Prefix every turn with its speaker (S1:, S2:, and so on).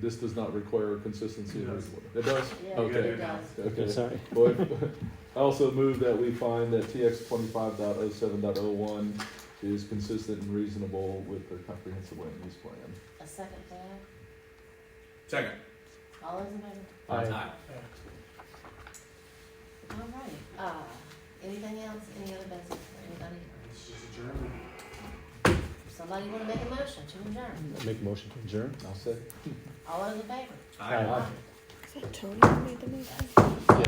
S1: this does not require consistency.
S2: It does.
S1: It does?
S3: Yeah,
S1: Okay.
S3: it does.
S1: Okay.
S4: I'm sorry.
S1: Well, I also move that we find that TX twenty-five dot oh seven dot oh one is consistent and reasonable with the comprehensive land use plan.
S3: A second that,
S2: Second.
S3: all those in favor?
S2: Aye.
S3: All right, uh, anything else, any other business for anybody?
S2: This is adjourned.
S3: Somebody wanna make a motion to adjourn?
S4: Make a motion to adjourn.
S1: I'll say.
S3: All those in favor?
S4: Aye.
S3: Aye.
S5: Is that Tony who made the motion?